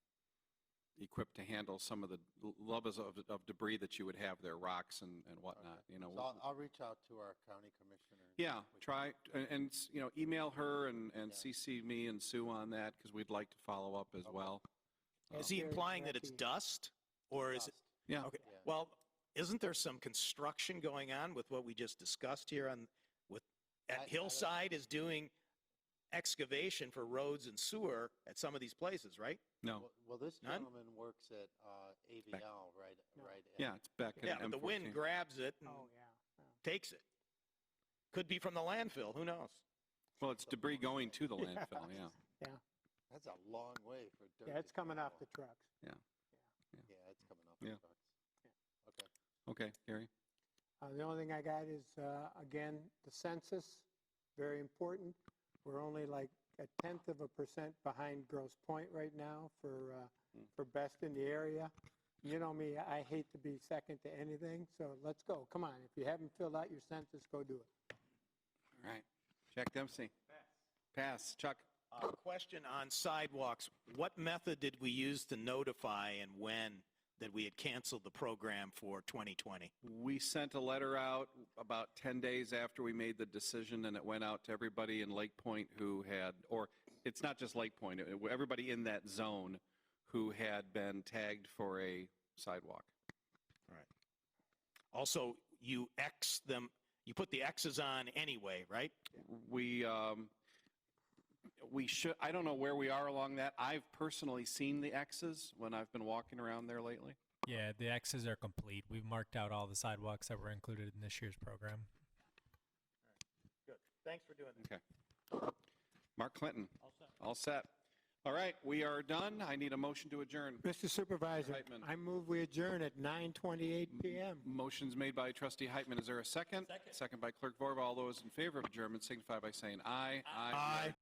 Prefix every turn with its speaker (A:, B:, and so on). A: equipped to handle some of the l- levels of, of debris that you would have there, rocks and, and whatnot, you know.
B: So I'll, I'll reach out to our county commissioner. and
A: Yeah,
B: we can-
A: try, and- and, s- you know, email her and, and
B: Yeah.
A: CC me and Sue on that, because we'd like to follow up as
B: Okay.
A: well.
C: Is he
D: Oh. Very
C: implying that it's
D: directly.
C: dust or is it?
B: Dust,
A: Yeah,
C: Okay,
B: yeah.
C: well, isn't there some construction going on with what we just discussed here on, with,
B: I- I
C: at
B: don't-
C: Hillside is doing excavation for roads and sewer at some of these places, right?
A: no,
B: Well- Well, this
C: None?
B: gentleman works at uh, AVL, right,
D: No.
B: right? at-
A: yeah, it's back in
C: Yeah, but the wind
A: M14.
C: grabs it and
D: Oh, yeah. Oh.
C: takes it. Could be from the landfill, who knows?
A: Well, it's debris going to the
D: Yeah.
A: landfill, yeah.
B: That's a long way for dirt.
D: Yeah, it's
B: to
D: coming off the
B: travel.
D: trucks.
B: Yeah, it's coming off
A: Yeah.
B: the trucks. Okay.
A: Okay, Gary?
D: Uh, the only thing I got is, uh, again, the census, very important. We're only like a tenth of a percent behind Gross Point right now for, uh,
C: Hmm.
A: Mm.
D: for best in the area. You know me, I hate to be second to anything, so let's go. Come on, if you haven't filled out your census, go do it.
A: All right. Jack Dempsey? Pass. Chuck?
C: Uh, Question on sidewalks. What method did we use to notify and when that we had canceled the program for 2020?
A: We sent a letter out about 10 days after we made the decision, and it went out to everybody in Lake Point who had, or it's not just Lake Point, it- everybody in that zone who had been tagged for a sidewalk.
C: Also, you X them, you put the X's on anyway, right?
A: We, um, we should, I don't know where we are along that. I've personally seen the X's when I've been walking around there lately.
E: Yeah, the X's are complete. We've marked out all the sidewalks that were included in this year's program.
C: Good. Thanks for doing that.
A: Mark Clinton? All set. All right, we are done. I need a motion to adjourn.
D: Mr. Supervisor,
A: Reitman.
D: I move we adjourn at 9:28 PM.
A: Motion's made by trustee Heitman. Is there a second? Second. by clerk Vorba. All those in favor of adjournment signify by saying aye.
C: Aye.